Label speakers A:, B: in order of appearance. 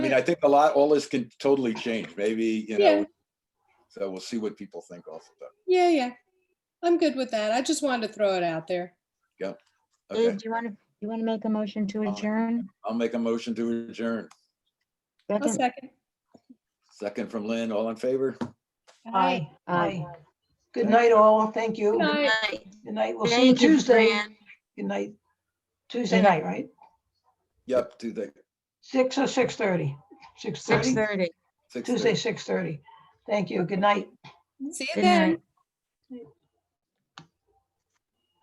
A: mean, I think a lot, all this can totally change, maybe, you
B: Yeah.
A: know. So we'll see what people think also. though.
B: Yeah, yeah. I'm good with that. I just wanted to throw it out there.
A: Okay,
C: Dave, do you want to, you want to make a motion to
A: I'll-
C: adjourn?
A: I'll make a motion to adjourn.
B: I'll
C: Second?
B: second.
A: Second from Lynn, all in favor?
B: Aye.
C: Aye.
D: Good night, all. Thank you.
B: Good night.
D: Good night. We'll see you
E: Thank you,
D: Tuesday.
E: Fran.
D: Good night. Tuesday night, right?
A: Yep, Tuesday.
D: Six or six thirty? Six
E: Six
D: thirty?
E: thirty.
A: six
D: Tuesday,
A: thirty.
D: six thirty. Thank you. Good night.
B: See you
E: Good
B: then.
E: night.